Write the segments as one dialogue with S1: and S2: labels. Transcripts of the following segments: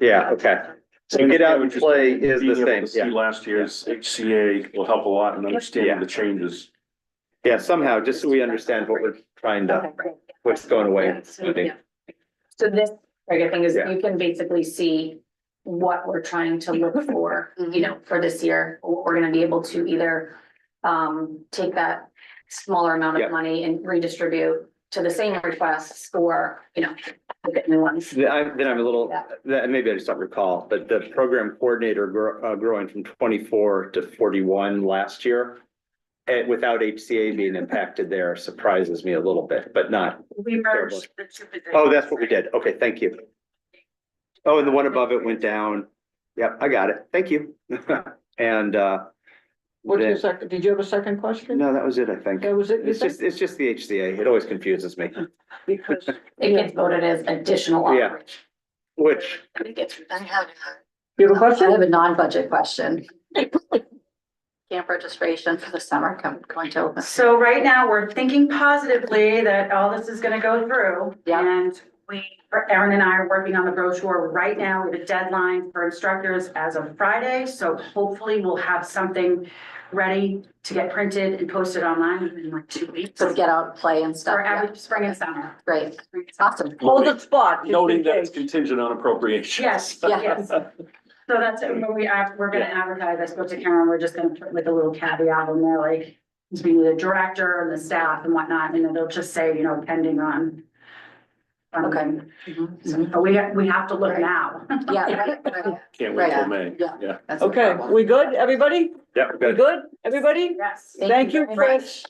S1: Yeah, okay. So get out and play is the
S2: Being able
S1: same,
S2: to see
S1: yeah.
S2: Last year's HCA will help a lot in understanding the changes.
S1: Yeah, somehow, just so we understand what we're trying to, uh, what's going away. and what's moving.
S3: So this trigger thing is
S1: Yeah.
S3: you can basically see what we're trying to look for,
S4: Mm-hmm.
S3: you know, for this year. What We're gonna be able to either um take that smaller amount
S1: Yeah.
S3: of money and redistribute to the same requests or, you know, get new ones.
S1: Then I'm, then I'm a little, that, maybe I just don't recall, but the program coordinator gro- uh, growing from twenty-four to forty-one last year. And without HCA being impacted there surprises me a little bit, but not,
S5: We merged the two positions.
S1: oh, that's what we did. Okay, thank you. Oh, and the one above it went down. Yep, I got it. Thank you. And, uh,
S4: What's your
S1: then-
S4: second, did you have a second question?
S1: no, that was it, I think.
S4: That was it, you
S1: It's
S4: said?
S1: just, it's just the HCA. It always confuses me,
S4: Because
S3: It gets voted as additional
S1: Yeah.
S3: operation.
S1: which,
S3: It gets-
S4: you have a
S6: I
S4: question?
S6: have a non-budget question. Camp registration for the summer come, going to open.
S5: So right now, we're thinking positively that all this is gonna go through.
S6: Yeah.
S5: And we, Erin and I are working on the brochure right now with a deadline for instructors as of Friday. So hopefully we'll have something ready to get printed and posted online in like two weeks.
S6: So get out, play and stuff.
S5: For
S6: yeah.
S5: every spring and summer.
S6: Great, awesome.
S4: Hold the spot. just in
S2: Noting that it's
S4: case.
S2: contingent on appropriations.
S5: Yes,
S6: Yeah.
S5: yes. So that's, it. when we, ad- we're gonna advertise, I spoke to Karen, we're just gonna put with a little caveat in there, like, between the director and the staff and whatnot, and then they'll just say, you know, pending on. on-
S6: Okay. Mm-hmm.
S5: So, But we, ha- we have to look now.
S6: Yeah. right, right.
S2: Can't wait till
S6: Right.
S2: May.
S6: Yeah.
S2: Yeah.
S6: That's no
S4: Okay,
S6: problem.
S4: we good, everybody?
S1: yeah,
S4: We
S1: good.
S4: good, everybody?
S5: Yes.
S6: Thank
S4: Thank
S6: you
S4: you,
S6: very
S4: Chris.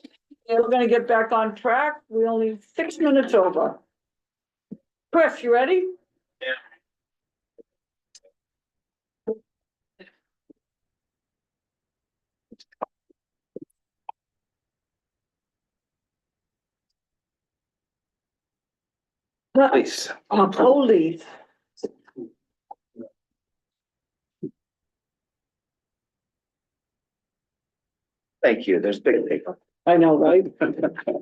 S4: We're gonna get back on track. We only have six minutes over. Chris, you ready?
S1: Please.
S4: Uh, Police.
S1: Thank you. There's big paper.
S4: I know, right? But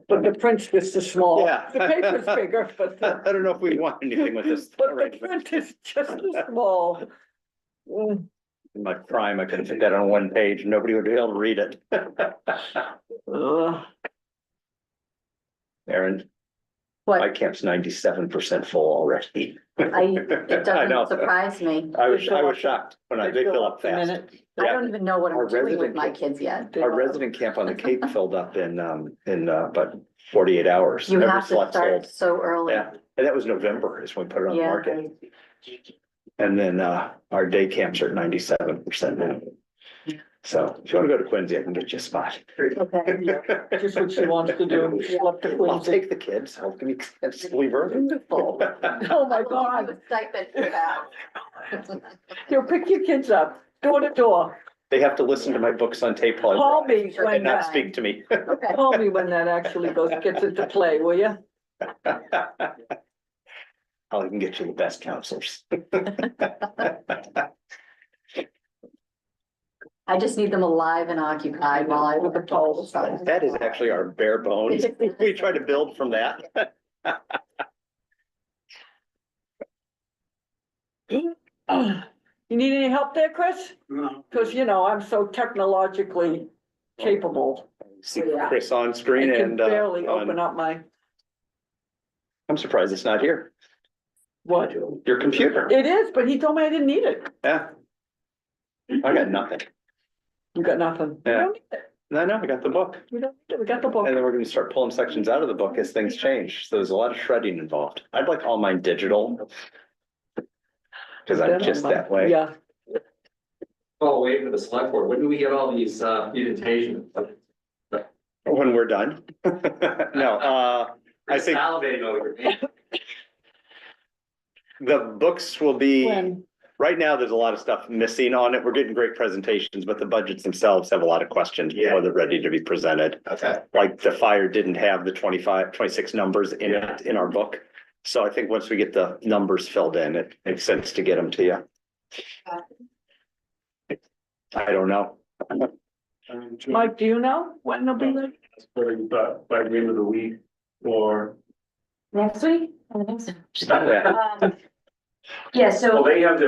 S4: the print's just as small.
S1: Yeah.
S4: The paper's bigger, but the.
S1: I don't know if we want anything with this.
S4: But the print is just as small. Mm,
S1: In my prime, I could have put that on one page. and Nobody would be able to read it.
S4: ugh.
S1: Aaron, my
S6: What,
S1: camp's ninety-seven percent full already.
S6: I, it
S1: I know.
S6: doesn't surprise me.
S1: I was, I was shocked when I, they fill up fast.
S4: Minute.
S6: I
S1: Yeah.
S6: don't even know what
S1: Our
S6: I'm doing with
S1: resident
S6: my
S1: camp-
S6: kids yet.
S4: They-
S1: Our resident camp on the Cape filled up in, um, in, uh, about forty-eight hours.
S6: You
S1: Every
S6: have to
S1: slot
S6: start
S1: sold.
S6: so early.
S1: Yeah, and that was November is when we put it on the
S6: Yeah.
S1: market. And then, uh, our day camps are ninety-seven percent now. So if you wanna go to Quincy, I can get you a spot.
S6: Okay.
S4: Just what she wants to do, she left the
S1: I'll
S4: Quincy.
S1: take the kids, I'll give you, kids, leave early.
S6: Wonderful.
S4: Oh my
S6: I
S4: God,
S6: would stipend for that.
S4: you pick your kids up, door to door,
S1: They have to listen to my books on tape while
S4: call me
S6: Sure,
S1: and
S4: when
S1: not
S4: that,
S1: speak to me.
S6: Okay.
S4: call me when that actually goes, gets into play, will you?
S1: I'll even get you the best counselors.
S6: I just need them alive and occupied while I work.
S4: Paul.
S1: That is actually our bare bones. We try to build from that.
S4: You need any help there, Chris? Cause you know, I'm so technologically capable,
S1: See Chris on
S4: I
S1: screen
S4: can
S1: and uh,
S4: barely
S1: on-
S4: open up my,
S1: I'm surprised it's not here.
S4: what?
S1: Your computer,
S4: It is, but he told me I didn't need it.
S1: yeah. I got nothing.
S4: You got nothing. We
S1: Yeah.
S4: don't need it.
S1: No, no, I got the book.
S4: We don't, need it. we got the
S1: And
S4: book.
S1: then we're gonna start pulling sections out of the book as things change. So there's a lot of shredding involved. I'd like all mine digital. Cause I'm just that way.
S4: Yeah,
S7: Oh, wait for the select board. When do we get all these uh mutations?
S1: When we're done. No, uh, I think-
S7: Salivating over. it.
S1: the books will be,
S4: when,
S1: right now, there's a lot of stuff missing on it. We're getting great presentations, but the budgets themselves have a lot of questions before they're ready to be presented.
S7: Okay,
S1: Like the fire didn't have the 25, 26 numbers in
S7: Yeah.
S1: it, in our book. So I think once we get the numbers filled in, it makes sense to get them to you. I don't know.
S4: Mike, do you know when they'll be
S1: Mm.
S4: there?
S2: But by the end of the week or
S3: Next week?
S1: Yeah.
S5: Um,
S3: Yeah, so.
S2: Well, they have their